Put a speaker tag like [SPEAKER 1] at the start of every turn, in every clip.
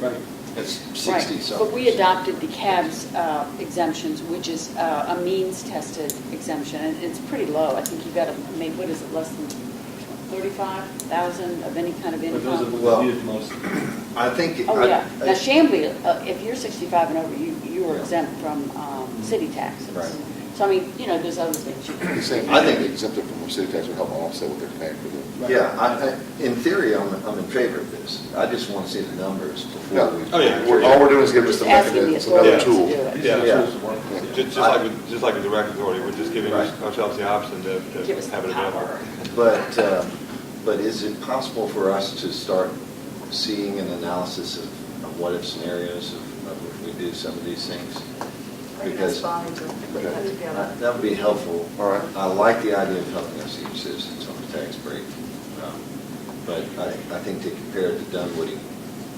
[SPEAKER 1] Right, that's
[SPEAKER 2] Right.
[SPEAKER 1] 60 something.
[SPEAKER 2] But we adopted the CABS uh, exemptions, which is uh, a means-tested exemption, and it's pretty low. I think you got to make, what is it, less than 35,000 of any kind of
[SPEAKER 3] But those are
[SPEAKER 2] income?
[SPEAKER 3] what we used most.
[SPEAKER 1] I think.
[SPEAKER 2] Oh,
[SPEAKER 1] I-
[SPEAKER 2] yeah.
[SPEAKER 1] I-
[SPEAKER 2] Now Shambly, uh, if you're 65 and over, you, you are exempt from um, city taxes.
[SPEAKER 1] Right.
[SPEAKER 2] So I mean, you know, there's other things you
[SPEAKER 4] You're
[SPEAKER 2] can.
[SPEAKER 4] saying, I think exempted from city tax would help offset what they're paying for the.
[SPEAKER 1] Yeah, I, I- in theory, I'm, I'm in favor of this. I just want to see the numbers before we.
[SPEAKER 5] Oh, yeah.
[SPEAKER 4] We're- All we're doing is giving us
[SPEAKER 2] Just
[SPEAKER 4] the
[SPEAKER 2] asking
[SPEAKER 4] mechanism,
[SPEAKER 2] the
[SPEAKER 4] it's another
[SPEAKER 2] authorities to
[SPEAKER 4] tool.
[SPEAKER 2] do it.
[SPEAKER 5] Yeah.
[SPEAKER 1] Yeah.
[SPEAKER 5] Just, just like, with- just like with the rec authority, we're just giving
[SPEAKER 1] Right.
[SPEAKER 5] ourselves the option to, to
[SPEAKER 2] Give us
[SPEAKER 5] have
[SPEAKER 2] the
[SPEAKER 5] it available.
[SPEAKER 2] power.
[SPEAKER 1] But, uh, but is it possible for us to start seeing an analysis of of what-if scenarios of of if we do some of these things?
[SPEAKER 6] Maybe that's
[SPEAKER 1] Because I-
[SPEAKER 6] fine, but put
[SPEAKER 4] Okay.
[SPEAKER 6] it together.
[SPEAKER 1] that would be helpful.
[SPEAKER 4] All right.
[SPEAKER 1] I like the idea of helping our senior citizens on the tax break, um, but I, I think to compare it to Dunwoody, um,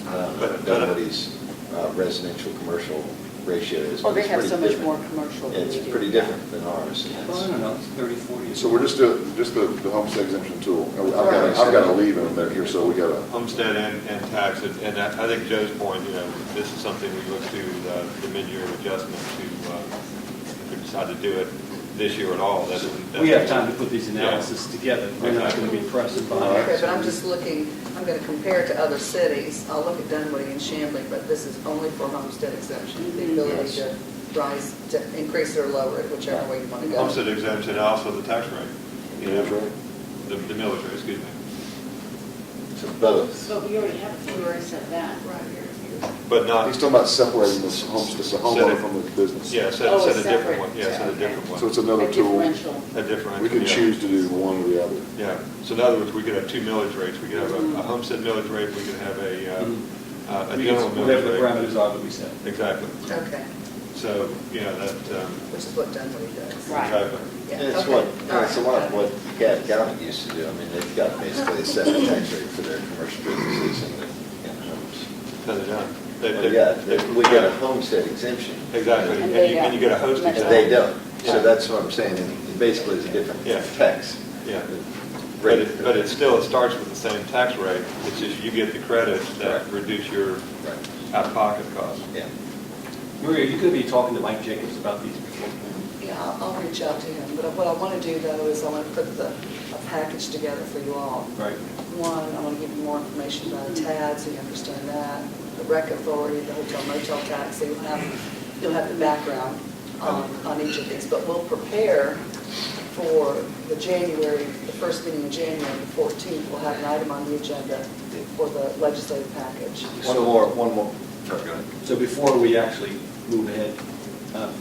[SPEAKER 5] But- but-
[SPEAKER 1] Dunwoody's uh, residential, commercial ratio is.
[SPEAKER 2] Well, they
[SPEAKER 1] is
[SPEAKER 2] have
[SPEAKER 1] pretty
[SPEAKER 2] so much
[SPEAKER 1] different.
[SPEAKER 2] more commercial than we
[SPEAKER 1] It's
[SPEAKER 2] do.
[SPEAKER 1] pretty different than ours. and
[SPEAKER 3] Well, I
[SPEAKER 1] it's-
[SPEAKER 3] don't know, it's 30, 40.
[SPEAKER 4] So we're just doing, just the, the homestead exemption tool. And I've got, I've got to leave in a minute here, so we got to.
[SPEAKER 5] Homestead and, and tax, and and I I think Joe's point, you know, this is something we look to, uh, the- the mid-year adjustment to, uh, if we decide to do it this year at all, that's.
[SPEAKER 3] We have time to put these analysis together, we're not going to be pressed by.
[SPEAKER 6] Okay, but I'm just looking, I'm going to compare it to other cities. I'll look at Dunwoody and Chamblee, but this is only for homestead exemption, the ability to rise, to increase or lower it, whichever way you want to go.
[SPEAKER 5] Homestead exemption, and also the tax rate. you know,
[SPEAKER 4] Millage rate.
[SPEAKER 5] The, the millage rate, excuse me.
[SPEAKER 1] It's both.
[SPEAKER 2] But we already have, we already said that.
[SPEAKER 6] Right here.
[SPEAKER 5] But not,
[SPEAKER 4] uh, He's talking about separating this homes, the homeowner from the business.
[SPEAKER 5] yeah,
[SPEAKER 2] Oh,
[SPEAKER 5] set, set a
[SPEAKER 2] it's
[SPEAKER 5] different
[SPEAKER 2] separate.
[SPEAKER 5] one, yeah, set a
[SPEAKER 2] Okay.
[SPEAKER 5] different one.
[SPEAKER 4] So it's another
[SPEAKER 2] A
[SPEAKER 4] tool.
[SPEAKER 2] differential.
[SPEAKER 5] A different.
[SPEAKER 4] We can
[SPEAKER 5] yeah.
[SPEAKER 4] choose to do one or the other.
[SPEAKER 5] Yeah, so in other words, we could have two millage rates, we could have a a homestead millage rate, we could have a,
[SPEAKER 3] Mhm.
[SPEAKER 5] uh, a
[SPEAKER 3] We
[SPEAKER 5] general
[SPEAKER 3] can- Whatever the
[SPEAKER 5] millage rate.
[SPEAKER 3] parameters are that we set.
[SPEAKER 5] Exactly,
[SPEAKER 6] Okay,
[SPEAKER 5] so, you know, that, um,
[SPEAKER 6] which is what Dunwoody does.
[SPEAKER 2] Right.
[SPEAKER 5] exactly.
[SPEAKER 6] Yeah,
[SPEAKER 1] It's
[SPEAKER 6] okay.
[SPEAKER 1] what,
[SPEAKER 6] All
[SPEAKER 1] it's a
[SPEAKER 6] right.
[SPEAKER 1] lot of what Cat County used to do. I mean, they've got basically a separate tax rate for their commercial businesses and their and homes.
[SPEAKER 5] Cut it down. They-
[SPEAKER 1] Well,
[SPEAKER 5] they-
[SPEAKER 1] Yeah, they- we get a homestead exemption,
[SPEAKER 5] Exactly,
[SPEAKER 2] And
[SPEAKER 5] and
[SPEAKER 2] they
[SPEAKER 5] you, and you get a host
[SPEAKER 2] don't.
[SPEAKER 1] and
[SPEAKER 5] exemption.
[SPEAKER 1] they don't.
[SPEAKER 5] Yeah.
[SPEAKER 1] So that's what I'm saying, it basically is a different
[SPEAKER 5] Yeah.
[SPEAKER 1] tax.
[SPEAKER 5] Yeah. But
[SPEAKER 1] rate.
[SPEAKER 5] it, but it still, it starts with the same tax rate, it's just you get the credits that
[SPEAKER 1] Right.
[SPEAKER 5] reduce your
[SPEAKER 1] Right,
[SPEAKER 5] out-of-pocket costs.
[SPEAKER 1] yeah.
[SPEAKER 3] Maria, you could be talking to Mike Jacobs about these before.
[SPEAKER 6] Yeah, I'll, I'll reach out to him, but what I want to do though is I want to put the, a package together for you all.
[SPEAKER 3] Right.
[SPEAKER 6] One, I want to give you more information about the TAD, so you understand that, the rec authority, the hotel motel tax, so you'll have, you'll have the background on, on each of these. But we'll prepare for the January, the first meeting in January, the 14th, we'll have an item on the agenda for the legislative package.
[SPEAKER 1] One more, one more. Sorry, go ahead.
[SPEAKER 3] So before we actually move ahead, um,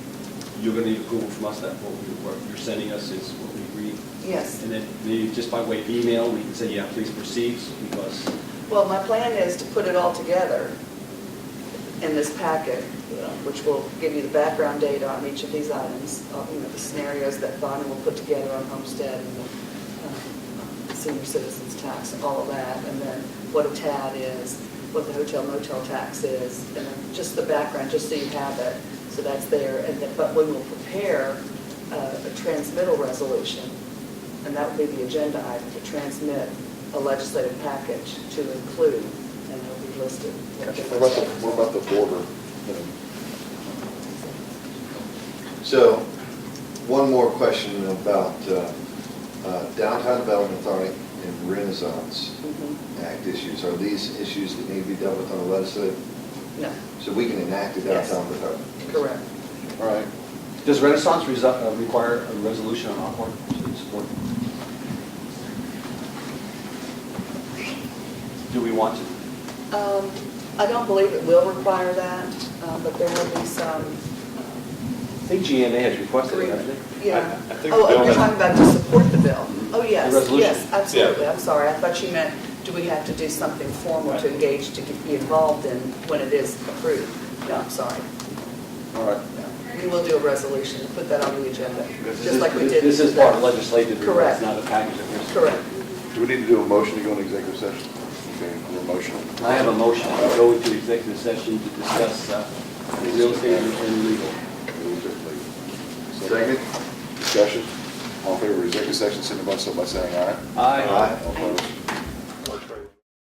[SPEAKER 3] you're going to need approval from us that what we- what you're sending us is what we agree.
[SPEAKER 6] Yes.
[SPEAKER 3] And then maybe just by way of email, we can say, yeah, please proceed, because
[SPEAKER 6] Well, my plan is to put it all together in this packet, which will give you the background data on each of these items, uh, you know, the scenarios that Bonnie will put together on homestead and the um, senior citizens tax, all of that, and then what a TAD is, what the hotel motel tax is, and then just the background, just so you have it, so that's there. And then, but we will prepare uh, a transmittal resolution and that would be the agenda item, to transmit a legislative package to include, and it'll be listed.
[SPEAKER 4] What about the, what about the border? Um,
[SPEAKER 1] So, one more question about uh, uh, downtown development authority and Renaissance
[SPEAKER 6] Mhm.
[SPEAKER 1] Act issues. Are these issues that need to be dealt with on the legislative?
[SPEAKER 6] No,
[SPEAKER 1] So we can enact a
[SPEAKER 6] Yes.
[SPEAKER 1] downtown without?
[SPEAKER 6] correct.
[SPEAKER 4] All right.
[SPEAKER 3] Does Renaissance resi- uh, require a resolution on Aqua support? Do we want to?
[SPEAKER 6] Um, I don't believe it will require that, uh, but there will be some. uh,
[SPEAKER 7] I think GMA has requested it, hasn't
[SPEAKER 6] agreement.
[SPEAKER 7] it?
[SPEAKER 6] Yeah.
[SPEAKER 5] I- I think the
[SPEAKER 6] Oh,
[SPEAKER 5] bill
[SPEAKER 6] you're
[SPEAKER 5] has-
[SPEAKER 6] talking about to support the bill? Oh, yes,
[SPEAKER 3] The resolution.
[SPEAKER 6] yes, absolutely. I'm sorry, I thought you meant, do we have to do something formal to engage, to get- be involved in when it is approved? No, I'm sorry.
[SPEAKER 4] All right.
[SPEAKER 6] We will do a resolution, and put that on the agenda,
[SPEAKER 7] This
[SPEAKER 6] just
[SPEAKER 7] is-
[SPEAKER 6] like we did.
[SPEAKER 7] This is part of legislative, it's
[SPEAKER 6] Correct.
[SPEAKER 7] not a package that we're.
[SPEAKER 6] Correct.
[SPEAKER 4] Do we need to do a motion to go into executive session? Okay, we're motion.
[SPEAKER 7] I have a motion
[SPEAKER 4] to
[SPEAKER 7] go into executive session to discuss uh,
[SPEAKER 4] real estate
[SPEAKER 7] and legal.
[SPEAKER 4] Second. Discussion. All in favor of executive session, signify so by saying aye.
[SPEAKER 7] Aye.
[SPEAKER 4] All opposed?